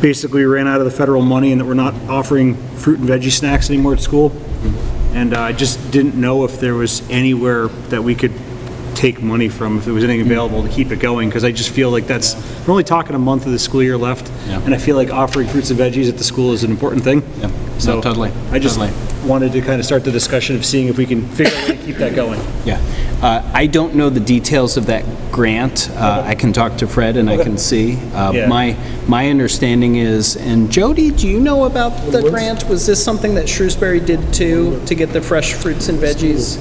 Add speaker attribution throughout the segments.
Speaker 1: basically we ran out of the federal money and that we're not offering fruit and veggie snacks anymore at school. And uh, I just didn't know if there was anywhere that we could take money from, if there was anything available to keep it going, because I just feel like that's, we're only talking a month of the school year left,
Speaker 2: Yeah.
Speaker 1: and I feel like offering fruits and veggies at the school is an important thing.
Speaker 2: Yeah. No,
Speaker 1: So
Speaker 2: totally,
Speaker 1: I just
Speaker 2: totally.
Speaker 1: wanted to kind of start the discussion of seeing if we can figure out a way to keep that going.
Speaker 2: Yeah. Uh, I don't know the details of that grant. Uh, I can talk to Fred and I can see. Uh,
Speaker 1: Yeah.
Speaker 2: My, my understanding is, and Jody, do you know about the grant? Was this something that Shrewsbury did too, to get the fresh fruits and veggies?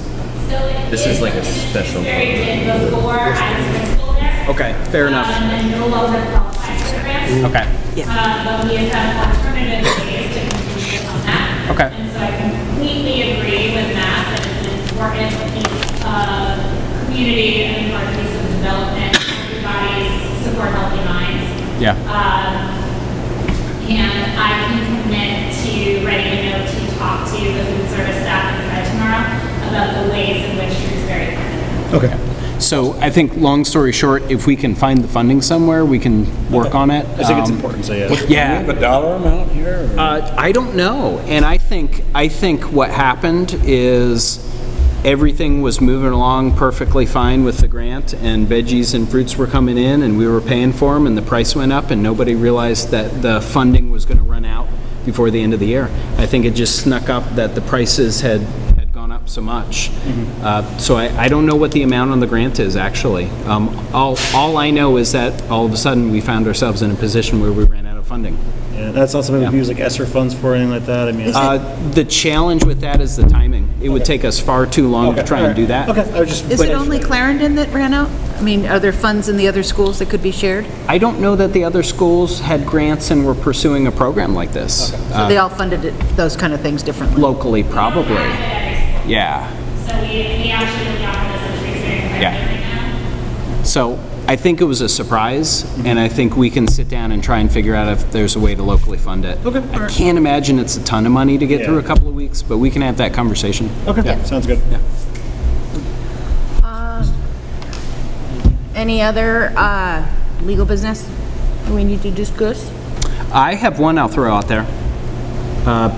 Speaker 3: This is like a special.
Speaker 4: Very good before I was principal there.
Speaker 2: Okay, fair enough.
Speaker 4: Um, and no longer qualified for the grant.
Speaker 2: Okay.
Speaker 4: Uh, but we have done alternative ways to continue on that.
Speaker 2: Okay.
Speaker 4: And so I completely agree with Matt that it's an important piece of community and important piece of development. Everybody's support healthy minds.
Speaker 2: Yeah.
Speaker 4: And I can commit to writing a note to talk to the food service staff and Fred tomorrow about the ways in which Shrewsbury can
Speaker 1: Okay.
Speaker 2: So I think, long story short, if we can find the funding somewhere, we can work on it.
Speaker 1: I think it's
Speaker 2: Um,
Speaker 1: important, so yeah.
Speaker 2: Yeah.
Speaker 5: a dollar amount here? or-
Speaker 2: Uh, I don't know, and I think, I think what happened is everything was moving along perfectly fine with the grant, and veggies and fruits were coming in, and we were paying for them, and the price went up, and nobody realized that the funding was gonna run out before the end of the year. I think it just snuck up that the prices had, had gone up so much. Uh, So I, I don't know what the amount on the grant is, actually. Um, All, all I know is that all of a sudden, we found ourselves in a position where we ran out of funding.
Speaker 1: Yeah, That's not something we use like ESSER funds for, or anything like that, I mean.
Speaker 2: Uh, The challenge with that is the timing. It would take us far too long to
Speaker 1: Okay,
Speaker 2: try and do that.
Speaker 1: Okay, I was just.
Speaker 6: Is
Speaker 1: but
Speaker 6: it
Speaker 1: if-
Speaker 6: only Clarendon that ran out? I mean, are there funds in the other schools that could be shared?
Speaker 2: I don't know that the other schools had grants and were pursuing a program like this
Speaker 6: So they all funded it, those kind of things differently?
Speaker 2: locally, probably. Yeah.
Speaker 4: So we, we actually offer this as a free training program
Speaker 2: Yeah.
Speaker 4: right now.
Speaker 2: So I think it was a surprise,
Speaker 1: Mm-hmm.
Speaker 2: and I think we can sit down and try and figure out if there's a way to locally fund it. Okay. I can't imagine it's a ton of money to get through a
Speaker 1: Yeah.
Speaker 2: couple of weeks, but we can have that conversation.
Speaker 1: Okay, sounds good.
Speaker 6: Any other uh, legal business we need to discuss?
Speaker 2: I have one I'll throw out there. Uh,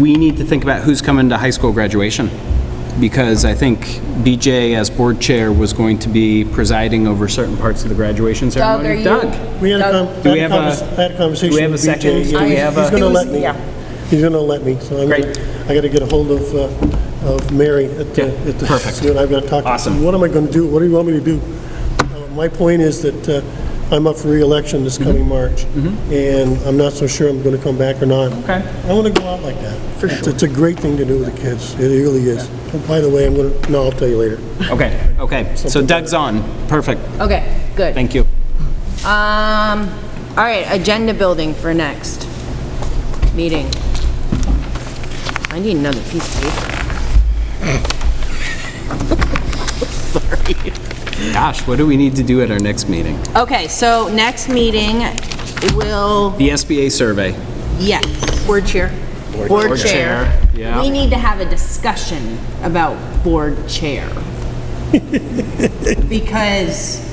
Speaker 2: We need to think about who's coming to high school graduation, because I think BJ, as board chair, was going to be presiding over certain parts of the graduation
Speaker 6: Doug, are
Speaker 2: ceremony.
Speaker 6: you?
Speaker 7: We had a
Speaker 6: Doug,
Speaker 7: con-
Speaker 2: Do we have
Speaker 7: had a
Speaker 2: a-
Speaker 7: convers- I had
Speaker 2: do we have
Speaker 7: a conversation
Speaker 2: a
Speaker 7: with
Speaker 2: second?
Speaker 7: BJ.
Speaker 2: Do we
Speaker 7: He's-
Speaker 2: have
Speaker 7: He's
Speaker 2: a-
Speaker 7: going to let
Speaker 6: Yeah.
Speaker 7: me. He's going to let me, so I'm,
Speaker 2: Great.
Speaker 7: gonna- I got to get a hold of, uh, of Mary at the,
Speaker 2: Yeah,
Speaker 7: at the.
Speaker 2: perfect.
Speaker 7: see what I've got to talk. to her.
Speaker 2: Awesome.
Speaker 7: What am I going to do? What do you want me to do? Uh, My point is that uh, I'm up for reelection
Speaker 2: Mm-hmm.
Speaker 7: this coming March, and I'm not so sure I'm going to come back or not.
Speaker 2: Okay.
Speaker 7: I want to go out like that. For sure. It's a great thing to do with the kids. It really is. And By the way, I'm going to, no, I'll tell you later.
Speaker 2: Okay, okay. So Doug's on. Perfect.
Speaker 6: Okay, good.
Speaker 2: Thank you.
Speaker 6: Um, all right, agenda building for next meeting. I need another piece of paper.
Speaker 2: Gosh, what do we need to do at our next meeting?
Speaker 6: Okay, so next meeting will,
Speaker 2: The SBA survey.
Speaker 6: yes. Board chair. Board chair.
Speaker 2: yeah.
Speaker 6: We need to have a discussion about board chair. Because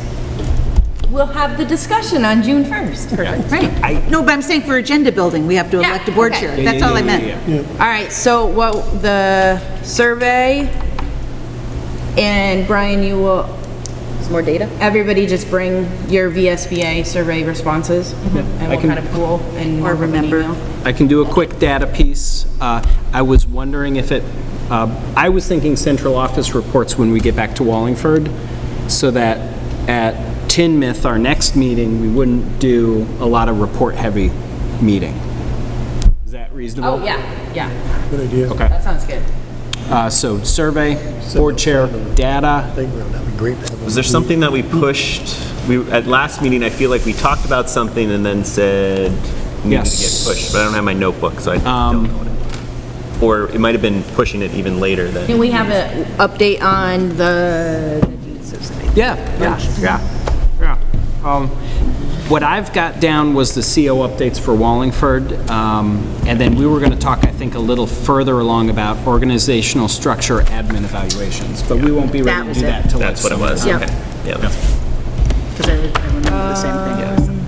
Speaker 6: we'll have the discussion on June 1st. Perfect. Right.
Speaker 8: No, but I'm saying for agenda building, we have to
Speaker 6: Yeah,
Speaker 8: elect a board
Speaker 6: okay.
Speaker 8: chair.
Speaker 6: Yeah,
Speaker 8: That's all I meant.
Speaker 6: All right, so what, the survey, and Brian, you will... Some more data? Everybody just bring your VSBA survey responses, and we'll
Speaker 2: can-
Speaker 6: kind of pool and...
Speaker 8: Or remember.
Speaker 2: I can do a quick data piece. Uh, I was wondering if it, uh, I was thinking central office reports when we get back to Wallingford, so that at Tinmouth, our next meeting, we wouldn't do a lot of report-heavy meeting. Is that reasonable?
Speaker 6: Oh, yeah, yeah,
Speaker 7: Good idea.
Speaker 2: Okay.
Speaker 6: that sounds good.
Speaker 2: Uh, So survey, board chair,
Speaker 7: I
Speaker 2: data.
Speaker 7: think that'd be great to have.
Speaker 3: Was there something that we pushed? We, at last meeting, I feel like we talked about something and then said, needed to get
Speaker 2: Yes. Um,
Speaker 3: pushed, but I don't have my notebook, so I don't know what it. Or it might have been pushing it even later than.
Speaker 6: Can we have an update on the deed society?
Speaker 2: Yeah, yeah, yeah, yeah. Um, What I've got down was the CO updates for Wallingford, um, and then we were going to talk, I think, a little further along about organizational structure admin evaluations, but we won't be ready
Speaker 8: That
Speaker 2: to
Speaker 8: was
Speaker 2: do
Speaker 8: it.
Speaker 2: that till. like
Speaker 3: That's what it was.
Speaker 2: summer.
Speaker 3: Okay. Yeah. that's-
Speaker 8: Because I I remember the same thing.